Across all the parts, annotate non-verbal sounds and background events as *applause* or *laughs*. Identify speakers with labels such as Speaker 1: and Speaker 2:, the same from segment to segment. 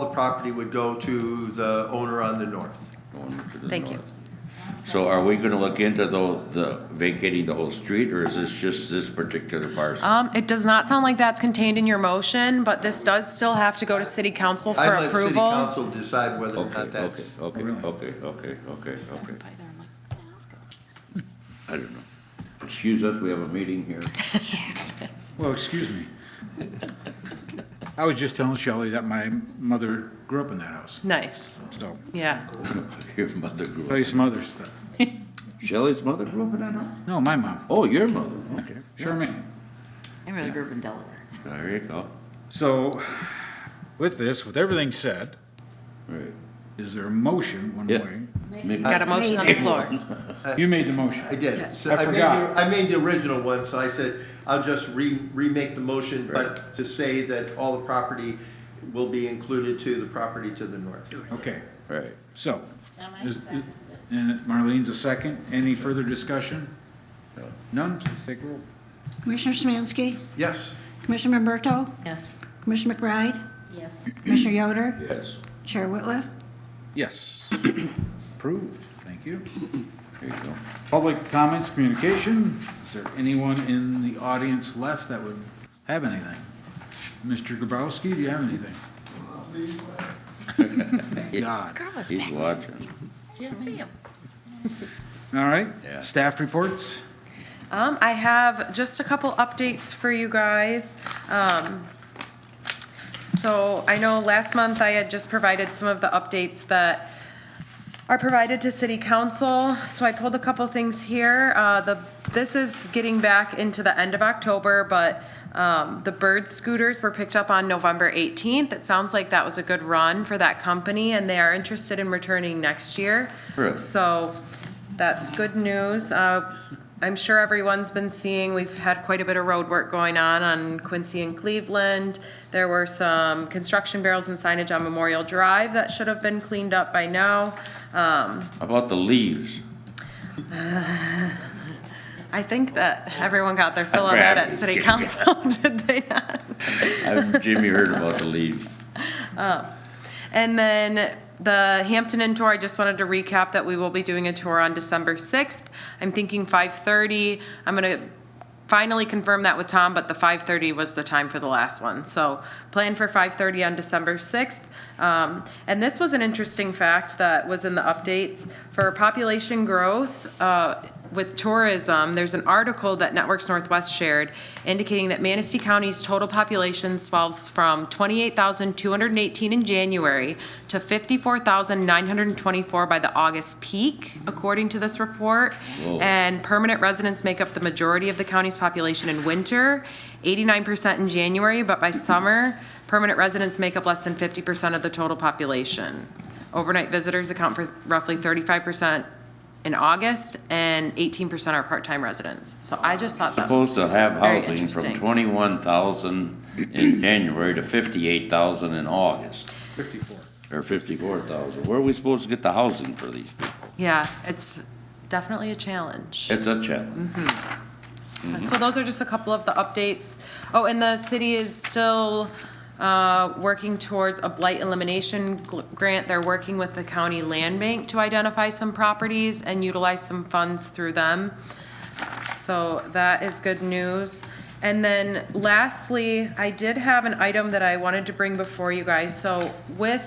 Speaker 1: the property would go to the owner on the north.
Speaker 2: going to the
Speaker 3: Thank you.
Speaker 2: north. So are we gonna look into though, the vacating the whole street, or is this just this particular parcel?
Speaker 3: Um, it does not sound like that's contained in your motion, but this does still have to go to city council for
Speaker 1: I let city
Speaker 3: approval.
Speaker 1: council decide whether or
Speaker 2: Okay,
Speaker 1: not
Speaker 2: okay,
Speaker 1: that's,
Speaker 2: okay, okay, okay, okay, okay. I don't know. Excuse us, we have a meeting here. *laughs*
Speaker 4: Well, excuse me. I was just telling Shelley that my mother grew up in that house,
Speaker 3: Nice,
Speaker 4: so,
Speaker 3: yeah.
Speaker 2: Your mother grew
Speaker 4: tell
Speaker 2: up,
Speaker 4: you some other stuff.
Speaker 2: Shelley's mother grew up in that house?
Speaker 4: No, my mom,
Speaker 2: Oh, your mother, okay.
Speaker 4: Charmaine.
Speaker 5: I really grew up in Delaware.
Speaker 2: There you go.
Speaker 4: So, with this, with everything said,
Speaker 2: Right.
Speaker 4: is there a motion one
Speaker 2: Yeah.
Speaker 4: way?
Speaker 2: Make-
Speaker 3: Got a motion on the floor.
Speaker 4: You made the motion.
Speaker 1: I did. So
Speaker 4: I
Speaker 1: made the-
Speaker 4: forgot.
Speaker 1: I made the original one, so I said, I'll just re, remake the motion, but to say that all the property will be included to the property to the north.
Speaker 4: Okay,
Speaker 2: Right.
Speaker 4: so, is, and Marlene's a second, any further discussion? None, please take roll.
Speaker 6: Commissioner Smansky,
Speaker 1: Yes,
Speaker 6: Commissioner Roberto,
Speaker 5: Yes.
Speaker 6: Commissioner McBride,
Speaker 5: Yes.
Speaker 6: Commissioner Yoder,
Speaker 2: Yes.
Speaker 6: Chair Whitliff.
Speaker 4: Yes, *coughs* approved, thank you.
Speaker 2: There you go.
Speaker 4: Public comments, communication. Is there anyone in the audience left that would have anything? Mr. Grabowski, do you have anything? God.
Speaker 3: Girl was
Speaker 2: He's watching.
Speaker 3: see him.
Speaker 4: All right.
Speaker 2: Yeah.
Speaker 4: Staff reports?
Speaker 3: Um, I have just a couple updates for you guys. Um, so I know last month I had just provided some of the updates that are provided to city council. So I pulled a couple things here. Uh, the, this is getting back into the end of October, but, um, the bird scooters were picked up on November 18th. It sounds like that was a good run for that company and they are interested in returning next year.
Speaker 2: Really?
Speaker 3: So that's good news. Uh, I'm sure everyone's been seeing, we've had quite a bit of road work going on on Quincy and Cleveland. There were some construction barrels and signage on Memorial Drive that should have been cleaned up by now. Um,
Speaker 2: How about the leaves?
Speaker 3: I think that everyone got their fill of that at
Speaker 2: Just
Speaker 3: city
Speaker 2: kidding.
Speaker 3: council, *laughs* did they not?
Speaker 2: I've Jimmy heard about the leaves.
Speaker 3: And then the Hampton Inn tour, I just wanted to recap that we will be doing a tour on December 6th. I'm thinking 5:30. I'm going to finally confirm that with Tom, but the 5:30 was the time for the last one. So plan for 5:30 on December 6th. Um, And this was an interesting fact that was in the updates. For population growth, uh, with tourism, there's an article that Networks Northwest shared indicating that Manistee County's total population swells from 28,218 in January to 54,924 by the August peak, according to this report.
Speaker 2: Whoa.
Speaker 3: And permanent residents make up the majority of the county's population in winter, 89% in January, but by summer, permanent residents make up less than 50% of the total population. Overnight visitors account for roughly 35% in August, and 18% are part-time residents. So I just thought that was,
Speaker 2: Supposed to have
Speaker 3: Very
Speaker 2: housing from
Speaker 3: interesting.
Speaker 2: twenty-one thousand in January to fifty-eight thousand in August,
Speaker 4: Fifty-four.
Speaker 2: or fifty-four thousand. Where are we supposed to get the housing for these people?
Speaker 3: yeah, it's definitely a challenge.
Speaker 2: It's a challenge.
Speaker 3: So those are just a couple of the updates. Oh, and the city is still uh, working towards a blight elimination gl- grant. They're working with the county land bank to identify some properties and utilize some funds through them. So that is good news. And then lastly, I did have an item that I wanted to bring before you guys. So with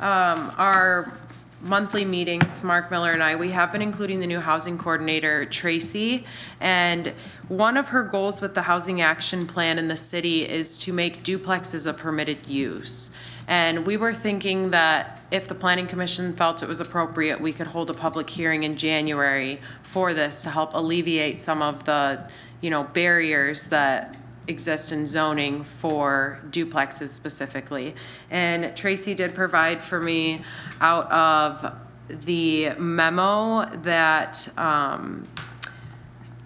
Speaker 3: um, our monthly meetings, Mark Miller and I, we have been including the new housing coordinator, Tracy. And one of her goals with the housing action plan in the city is to make duplexes a permitted use. And we were thinking that if the planning commission felt it was appropriate, we could hold a public hearing in January for this to help alleviate some of the, you know, barriers that exist in zoning for duplexes specifically. And Tracy did provide for me out of the memo that, um,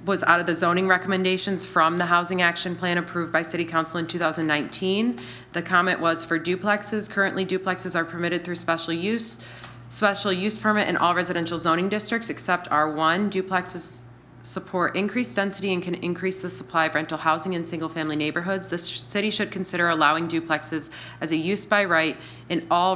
Speaker 3: was out of the zoning recommendations from the Housing Action Plan approved by City Council in 2019. The comment was for duplexes, currently duplexes are permitted through special use, special use permit in all residential zoning districts except R1. Duplexes support increased density and can increase the supply of rental housing in single-family neighborhoods. The sh- city should consider allowing duplexes as a use by right in all